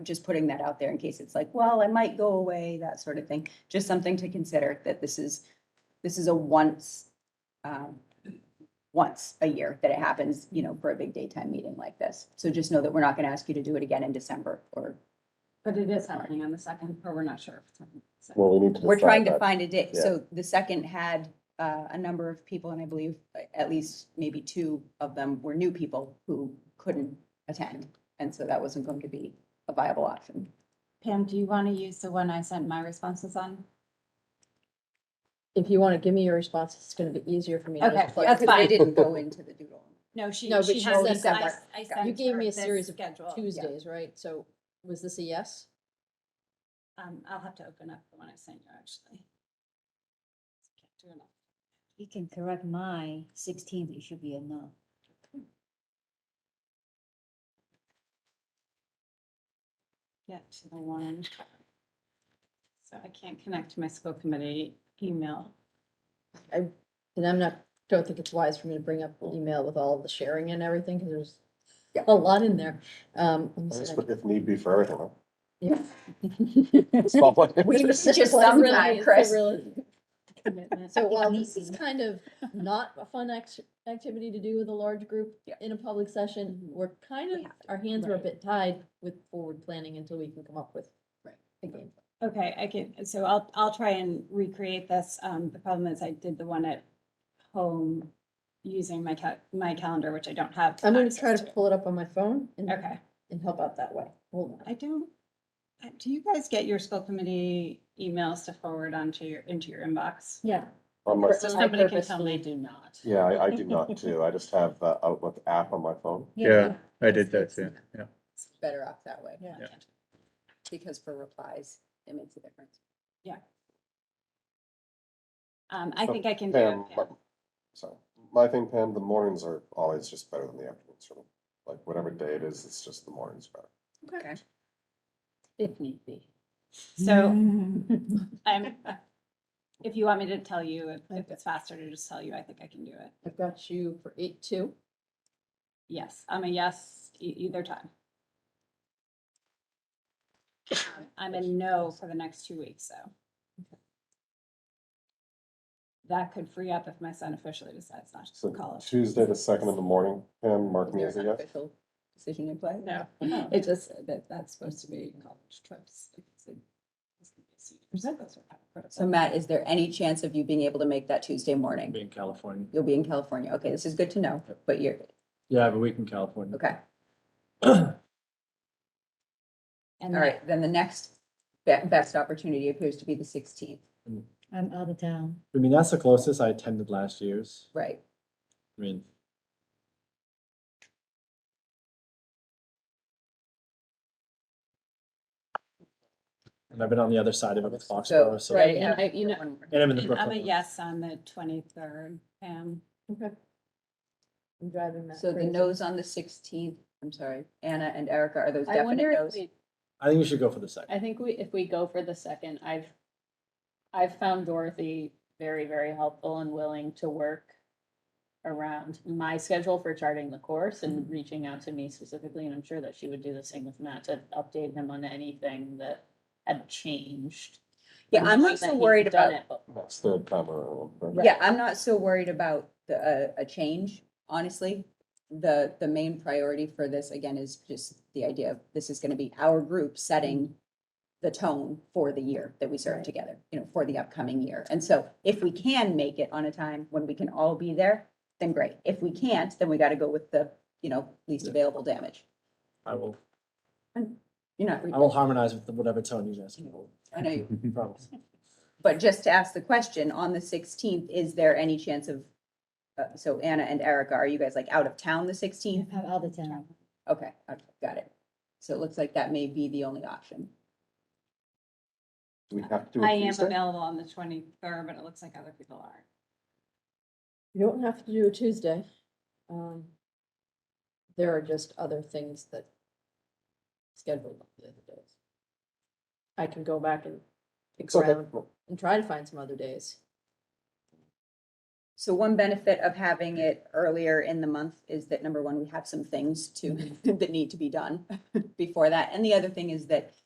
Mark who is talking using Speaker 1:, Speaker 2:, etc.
Speaker 1: just putting that out there in case it's like, well, I might go away, that sort of thing. Just something to consider that this is, this is a once, um, once a year that it happens, you know, for a big daytime meeting like this. So just know that we're not going to ask you to do it again in December or
Speaker 2: But it is happening on the second, or we're not sure. if it's happening on the second.
Speaker 3: Well, we need to.
Speaker 1: We're
Speaker 3: decide
Speaker 1: trying to
Speaker 3: that.
Speaker 1: find a date.
Speaker 3: Yeah.
Speaker 1: So the second had uh, a number of people, and I believe uh, at least maybe two of them were new people who couldn't attend. And so that wasn't going to be a viable option.
Speaker 2: Pam, do you want to use the one I sent my responses on?
Speaker 4: If you want to give me your response, it's going to be easier for me. to
Speaker 2: Okay,
Speaker 4: just plug
Speaker 2: that's
Speaker 4: it.
Speaker 1: They
Speaker 2: fine.
Speaker 1: didn't go into the doodle.
Speaker 2: No, she,
Speaker 4: No, but
Speaker 2: she
Speaker 4: she
Speaker 2: has
Speaker 4: said
Speaker 2: this. I-
Speaker 4: that.
Speaker 2: I sent
Speaker 4: You gave
Speaker 2: her
Speaker 4: me a
Speaker 2: this
Speaker 4: series of
Speaker 2: Schedule.
Speaker 4: Tuesdays, right? So was this a yes?
Speaker 2: Um, I'll have to open up the one I sent you, actually. Can't do enough.
Speaker 5: You can correct my sixteenth, it should be a no.
Speaker 2: Get to the one. So I can't connect to my school committee email.
Speaker 4: And I'm not, don't think it's wise for me to bring up email with all of the sharing and everything because there's
Speaker 1: Yeah.
Speaker 4: a lot in there. Um, let me see
Speaker 3: That's
Speaker 4: if I
Speaker 3: what- If need be for everything. huh?
Speaker 4: can-
Speaker 3: It's not like-
Speaker 1: We
Speaker 4: It's
Speaker 1: just
Speaker 4: like
Speaker 1: sometime,
Speaker 4: really- it's a
Speaker 1: Chris.
Speaker 4: really-
Speaker 2: Commitment.
Speaker 4: So
Speaker 5: think
Speaker 4: while
Speaker 5: we
Speaker 4: this is
Speaker 5: can.
Speaker 4: kind of not a fun act- activity to do with a large group
Speaker 1: Yeah.
Speaker 4: in a public session, we're kind
Speaker 1: We
Speaker 4: of,
Speaker 1: have
Speaker 4: our hands are a
Speaker 1: right.
Speaker 4: bit tied with forward planning until we can come up with. a game. plan.
Speaker 2: Okay, I can, so I'll, I'll try and recreate this. Um, the problem is I did the one at home using my ca- my calendar, which I don't have.
Speaker 4: I'm gonna
Speaker 2: access
Speaker 4: try to pull it up on my phone and,
Speaker 2: Okay,
Speaker 4: and help out that way. Hold on.
Speaker 2: I don't, uh, do you guys get your school committee emails to forward onto your, into your inbox?
Speaker 4: Yeah.
Speaker 3: On my,
Speaker 2: So
Speaker 4: I
Speaker 2: somebody can tell me.
Speaker 4: purposefully
Speaker 2: Do not.
Speaker 3: yeah, I, I do not too. I just have the Outlook app on my phone.
Speaker 6: Yeah, I did that too, yeah.
Speaker 1: It's better off that way
Speaker 4: Yeah.
Speaker 1: because for replies, it makes a difference.
Speaker 2: Um, I think I can do it.
Speaker 3: Pam,
Speaker 2: yeah.
Speaker 3: my- sorry, my thing, Pam, the mornings are always just better than the afternoons for me. Like whatever day it is, it's just the mornings better.
Speaker 1: Okay.
Speaker 4: If need be.
Speaker 2: So
Speaker 4: Mm. Mm-hmm.
Speaker 2: I'm, if you want me to tell you, if- if it's faster to just tell you, I think I can do it.
Speaker 4: I've got you for eight two.
Speaker 2: Yes, I'm a yes e- either time. Um, I'm a no for the next two weeks, so. That could free up if my son officially decides not to
Speaker 3: So
Speaker 2: college.
Speaker 3: Tuesday the second in the morning, Pam, mark
Speaker 1: Is
Speaker 3: me
Speaker 1: there
Speaker 3: as a
Speaker 1: an
Speaker 3: yes.
Speaker 1: official decision in play?
Speaker 2: No, it just, that, that's supposed to be college trips. It's a- it's gonna be seniors, so those are kind of critical.
Speaker 1: So Matt, is there any chance of you being able to make that Tuesday morning?
Speaker 7: Be in California.
Speaker 1: You'll be in California. Okay, this is good to know, but you're,
Speaker 7: Yeah, I have a week in California.
Speaker 1: okay.
Speaker 2: And
Speaker 1: All right, then the next be- best opportunity appears to be the sixteenth,
Speaker 5: I'm out of town.
Speaker 7: I mean, that's the closest I attended last year's.
Speaker 1: right?
Speaker 7: I mean, and I've been on the other side of it with Foxborough, so,
Speaker 1: right,
Speaker 7: and
Speaker 2: and I, you know,
Speaker 7: I'm in the
Speaker 2: I'm a
Speaker 7: Brooklyn. one.
Speaker 2: yes on the twenty-third, um,
Speaker 4: Okay. I'm driving that.
Speaker 1: So the
Speaker 4: crazy.
Speaker 1: no's on the sixteenth, I'm sorry, Anna and Erica, are those
Speaker 8: I wonder
Speaker 1: definite
Speaker 8: if
Speaker 1: no's?
Speaker 8: we,
Speaker 7: I think we should go for the second.
Speaker 8: I think we, if we go for the second, I've, I've found Dorothy very, very helpful and willing to work around my schedule for charting the course and
Speaker 1: Mm-hmm.
Speaker 8: reaching out to me specifically, and I'm sure that she would do the same with Matt to update him on anything that had changed.
Speaker 1: Yeah, I'm
Speaker 8: Not
Speaker 1: not
Speaker 8: that
Speaker 1: so
Speaker 8: he's
Speaker 1: worried
Speaker 8: done
Speaker 1: about,
Speaker 8: it, but-
Speaker 3: That's third time around. right?
Speaker 1: yeah, I'm not so worried about the, uh, a, a change, honestly. The, the main priority for this, again, is just the idea of this is gonna be our group setting the tone for the year that we serve together, you know, for the upcoming year. And so if we can make it on a time when we can all be there, then great. If we can't, then we gotta go with the, you know, least
Speaker 7: Yeah.
Speaker 1: available damage.
Speaker 7: I will,
Speaker 1: You're not,
Speaker 7: I will harmonize with whatever tone you guys can hold,
Speaker 1: I know you
Speaker 7: promise.
Speaker 1: But just to ask the question, on the sixteenth, is there any chance of, uh, so Anna and Erica, are you guys like out of town the sixteenth?
Speaker 5: I'm out of town.
Speaker 1: Okay, okay, got it. So it looks like that may be the only option.
Speaker 3: Do we have to do
Speaker 2: I
Speaker 3: it
Speaker 2: am
Speaker 3: Tuesday?
Speaker 2: available on the twenty-third, but it looks like other people are.
Speaker 4: You don't have to do a Tuesday. Um, There are just other things that scheduled on the other days. I can go back and pick
Speaker 3: It's okay.
Speaker 4: around and try to find some other days.
Speaker 1: So one benefit of having it earlier in the month is that number one, we have some things to, that need to be done before that. And the other thing is that